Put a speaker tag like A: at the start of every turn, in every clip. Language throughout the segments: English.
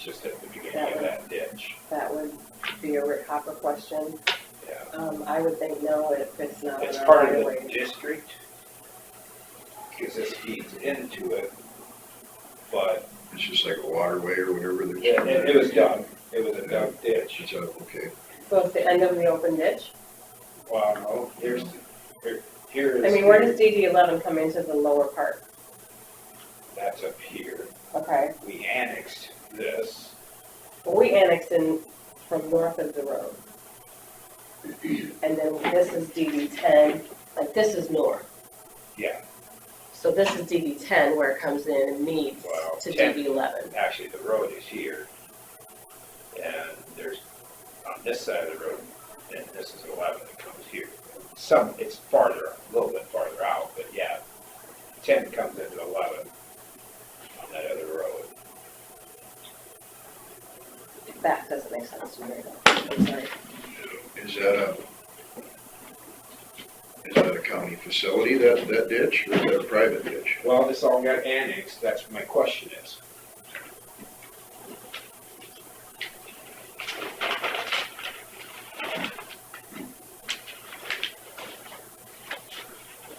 A: just at the beginning of that ditch,
B: That would be a Rick Hopper question.
A: yeah.
B: Um, I would think no if it's not
A: It's
B: in our
A: part
B: right
A: of
B: of
A: the
B: way.
A: district, because this feeds into it, but
C: It's just like a waterway or whatever. there's-
A: it, it was dug, it was a dug ditch.
C: It's a, okay,
B: So it's the end of the open ditch?
A: Wow, no, here's, here, here is.
B: I mean, where does DD eleven come into the lower part?
A: That's up here,
B: Okay,
A: we annexed this,
B: well, we annexed in from north of the road. And then this is DD ten, like this is north.
A: yeah,
B: So this is DD ten where it comes in and meets
A: Wow,
B: to
A: 10.
B: DD eleven.
A: actually, the road is here. And there's, on this side of the road, and this is eleven that comes here. Some, it's farther, a little bit farther out, but yeah, ten comes into eleven on that other road.
B: That doesn't make sense to me. I'm sorry.
C: is that a, is that a county facility, that, that ditch, or is that a private ditch?
A: Well, this all got annexed, that's what my question is.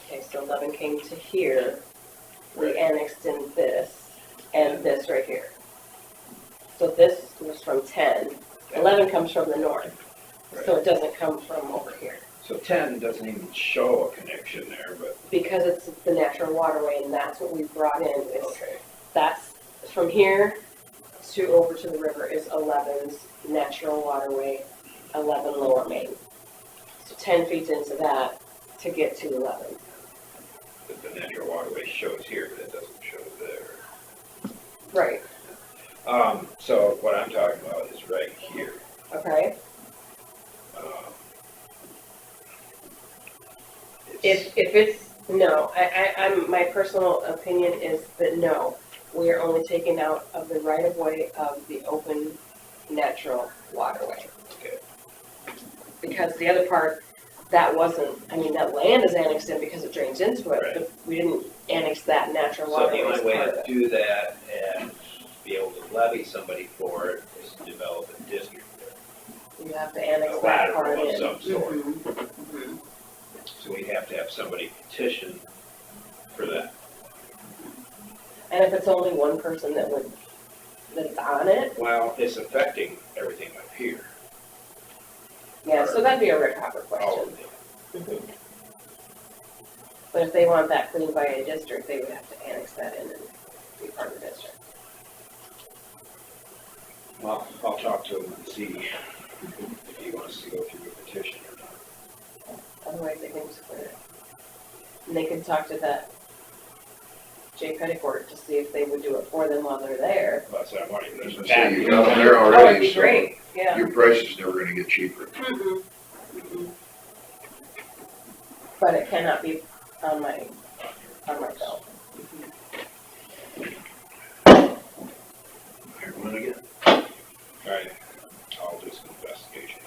B: Okay, so eleven came to here, we annexed in this and this right here. So this was from ten. Eleven comes from the north, so it doesn't come from over here.
A: So ten doesn't even show a connection there, but,
B: Because it's the natural waterway and that's what we brought in, is
A: okay,
B: that's, from here to over to the river is 11's natural waterway, eleven lower main. So ten feeds into that to get to eleven.
A: but the natural waterway shows here, but it doesn't show there.
B: Right.
A: Um, so what I'm talking about is right here.
B: Okay?
A: um, it's-
B: If, if it's, no, I, I, I'm, my personal opinion is that no, we are only taking out of the right of way of the open natural waterway.
A: Okay.
B: Because the other part, that wasn't, I mean, that land is annexed in because it drains into it, but we didn't annex that natural
D: So the
B: waterway as
D: only way
B: part of
D: to
B: it.
D: do that and be able to levy somebody for it is to develop a district.
B: You have to annex
D: A
B: that
D: lateral
B: part
D: of
B: in.
D: some sort.
B: Mhm, mhm.
D: So we'd have to have somebody petition for that.
B: And if it's only one person that would, that's on it,
A: Well, it's affecting everything up here,
B: yeah, so that'd be a Rick Hopper
D: Oh,
A: all
B: question.
A: of them.
B: But if they want that cleaned by a district, they would have to annex that in and be part of the district.
A: Well, I'll talk to him and see if he wants to go through the petition or not.
B: Otherwise, they can just clear it. And they could talk to that Jay Petticourt to see if they would do it for them while they're there.
A: But so I'm wondering,
C: As
A: there's
C: I
A: a
C: say,
A: back.
C: you got them there
B: Oh,
C: already.
B: that'd be
C: so
B: great, yeah.
C: Your price is never gonna get cheaper.
B: Mhm. Mhm. But it cannot be on my, on my bill.
C: Here, one again.
A: All right, I'll do some investigation.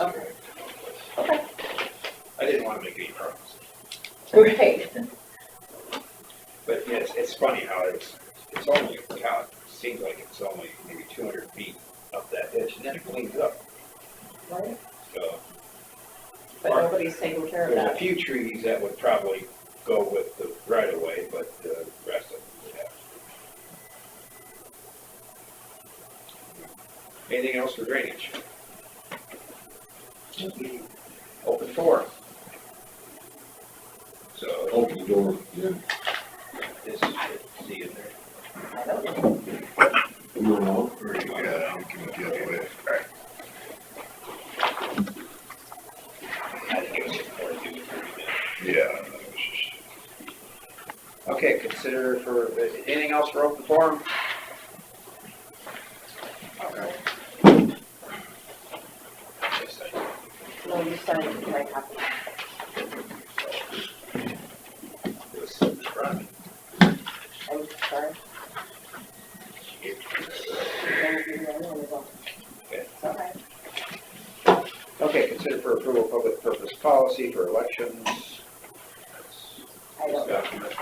B: Okay.
A: Okay. I didn't want to make any promises.
B: Right.
A: But yeah, it's, it's funny how it's, it's only, how it seems like it's only maybe two hundred feet up that ditch, and then it cleans up,
B: Right?
A: so.
B: But nobody's taking care of
A: There's a
B: that.
A: few trees that would probably go with the right of way, but uh, the rest of them would have. to. Anything else for drainage? Open forum. So,
E: Open the door, yeah,
A: this is, see in there.
B: I don't know.
E: you don't know.
C: Or you got it, you can get away.
A: I think it was forty-two to thirty minutes.
C: Yeah. that was just-
A: Okay, consider for, anything else for open forum? Okay. Yes, I do.
B: No, you signed my copy.
A: It was from-
B: I'm sorry. Thank you, no, no, no.
A: Okay.
B: It's okay.
A: Okay, consider for approval public purpose policy for elections.
B: I don't know.
A: Document.